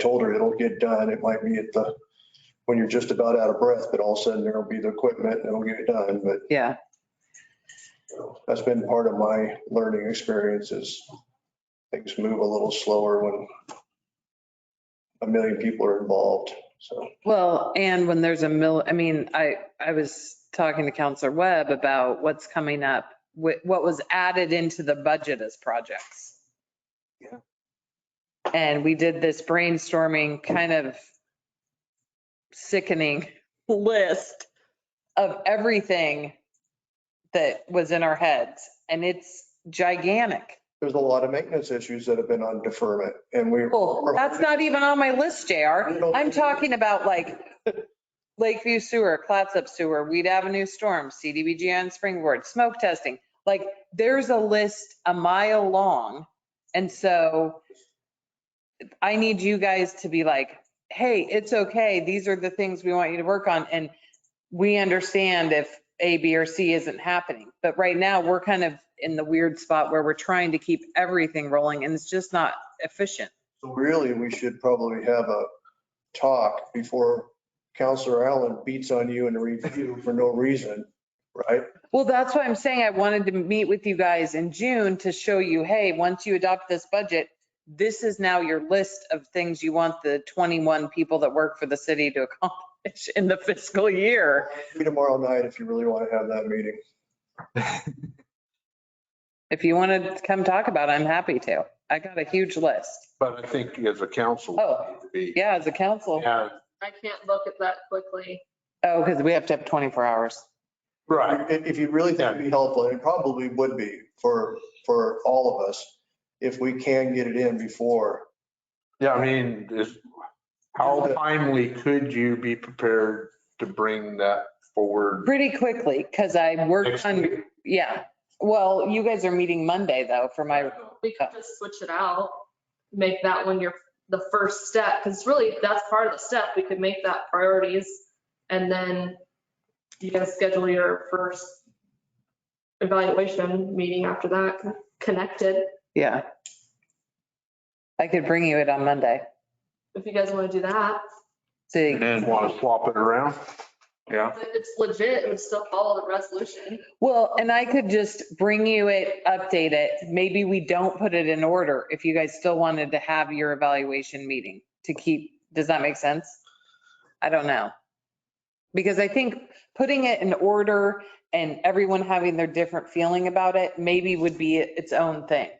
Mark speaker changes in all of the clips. Speaker 1: told her it'll get done. It might be at the, when you're just about out of breath, but all of a sudden there'll be the equipment and it'll get it done. But
Speaker 2: Yeah,
Speaker 1: you know, that's been part of my learning experience is things move a little slower when a million people are involved. So
Speaker 2: well, and when there's a mill, I mean, I, I was talking to Counselor Webb about what's coming up, wh- what was added into the budget as projects.
Speaker 1: Yeah.
Speaker 2: And we did this brainstorming kind of sickening list of everything that was in our heads, and it's gigantic.
Speaker 1: there's a lot of maintenance issues that have been on deferment and we.
Speaker 2: Well, that's not even on my list, JR. I'm talking about like Lakeview Sewer, Clatsop Sewer, Weed Avenue Storm, CDBG on Springboard, smoke testing. Like, there's a list a mile long. And so I need you guys to be like, hey, it's okay. These are the things we want you to work on. And we understand if A, B, or C isn't happening. But right now, we're kind of in the weird spot where we're trying to keep everything rolling and it's just not efficient.
Speaker 1: So Really, we should probably have a talk before Counselor Allen beats on you in a review for no reason, right?
Speaker 2: Well, that's why I'm saying I wanted to meet with you guys in June to show you, hey, once you adopt this budget, this is now your list of things you want the 21 people that work for the city to accomplish in the fiscal year.
Speaker 1: Be tomorrow night if you really want to have that meeting.
Speaker 2: If you want to come talk about it, I'm happy to. I got a huge list.
Speaker 3: But I think as a council.
Speaker 2: Oh.
Speaker 3: we-
Speaker 2: Yeah, as a council.
Speaker 3: Yeah,
Speaker 4: I can't look at that quickly.
Speaker 2: Oh, because we have to have 24 hours.
Speaker 3: right.
Speaker 1: If if you really think it'd be helpful, and it probably would be for, for all of us, if we can get it in before.
Speaker 3: Yeah, I mean, is, how timely could you be prepared to bring that forward?
Speaker 2: Pretty quickly, because I work
Speaker 3: next
Speaker 2: on,
Speaker 3: week?
Speaker 2: yeah. Well, you guys are meeting Monday though for my,
Speaker 4: We could just switch it out, make that one your, the first step, because really, that's part of the step. We could make that priorities. And then you guys schedule your first evaluation meeting after that, connected.
Speaker 2: yeah. I could bring you it on Monday.
Speaker 4: If you guys want to do that,
Speaker 2: See,
Speaker 3: And then want to swap it around? Yeah.
Speaker 4: But it's legit, it would still follow the resolution.
Speaker 2: Well, and I could just bring you it, update it. Maybe we don't put it in order if you guys still wanted to have your evaluation meeting to keep, does that make sense? I don't know. Because I think putting it in order and everyone having their different feeling about it maybe would be its own thing.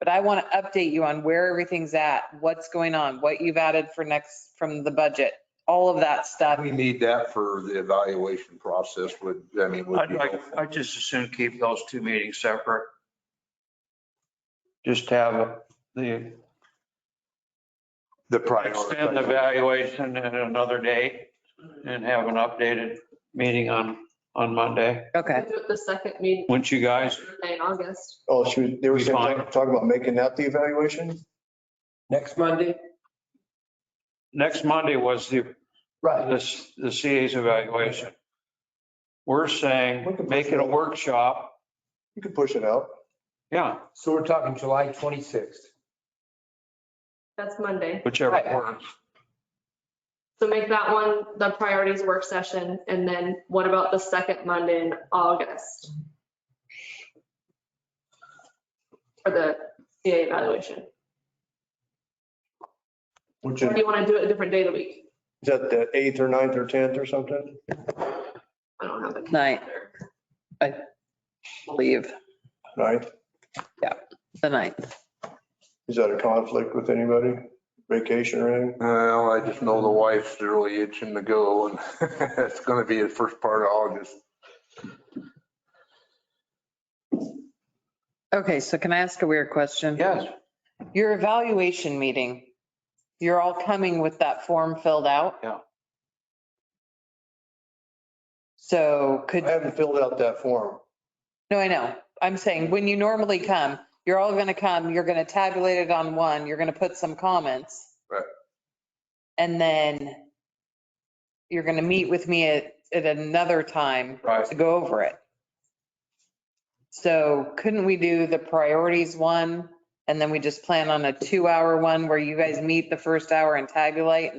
Speaker 2: But I want to update you on where everything's at, what's going on, what you've added for next, from the budget, all of that stuff.
Speaker 3: We need that for the evaluation process would, I mean, would
Speaker 5: I'd
Speaker 3: be
Speaker 5: like,
Speaker 3: helpful.
Speaker 5: I'd just as soon keep those two meetings separate. Just have the,
Speaker 3: the
Speaker 5: extend the
Speaker 3: priority.
Speaker 5: evaluation at another day and have an updated meeting on, on Monday.
Speaker 2: Okay.
Speaker 4: Do it The second meeting
Speaker 5: Wouldn't you guys?
Speaker 4: in August.
Speaker 1: Oh, she, was- they were
Speaker 5: Be
Speaker 1: saying-
Speaker 5: fine.
Speaker 1: talking about making that the evaluation?
Speaker 6: Next Monday?
Speaker 5: Next Monday was the,
Speaker 6: Right.
Speaker 5: this, the CA's evaluation. We're saying, make it a workshop.
Speaker 1: You could push it out.
Speaker 5: Yeah,
Speaker 6: So we're talking July 26th.
Speaker 4: That's Monday.
Speaker 5: whichever
Speaker 6: Right.
Speaker 5: works.
Speaker 4: So make that one the priorities work session, and then what about the second Monday in August? For the CA evaluation?
Speaker 1: Which
Speaker 4: Or
Speaker 1: is
Speaker 4: do you want to do it a different day of the week?
Speaker 1: is that the eighth or ninth or 10th or something?
Speaker 4: I don't have it.
Speaker 2: Night. Leave
Speaker 1: Ninth?
Speaker 2: the night.
Speaker 1: Is that a conflict with anybody? Vacation or anything?
Speaker 3: Well, I just know the wife's really itching to go and it's going to be the first part of August.
Speaker 2: Okay, so can I ask a weird question?
Speaker 5: Yes.
Speaker 2: Your evaluation meeting, you're all coming with that form filled out?
Speaker 5: Yeah.
Speaker 2: So could,
Speaker 1: I haven't filled out that form.
Speaker 2: no, I know. I'm saying when you normally come, you're all going to come, you're going to tabulate it on one, you're going to put some comments.
Speaker 3: Right.
Speaker 2: And then you're going to meet with me at, at another time
Speaker 3: Right.
Speaker 2: to go over it. So couldn't we do the priorities one And then we just plan on a two-hour one where you guys meet the first hour and tabulate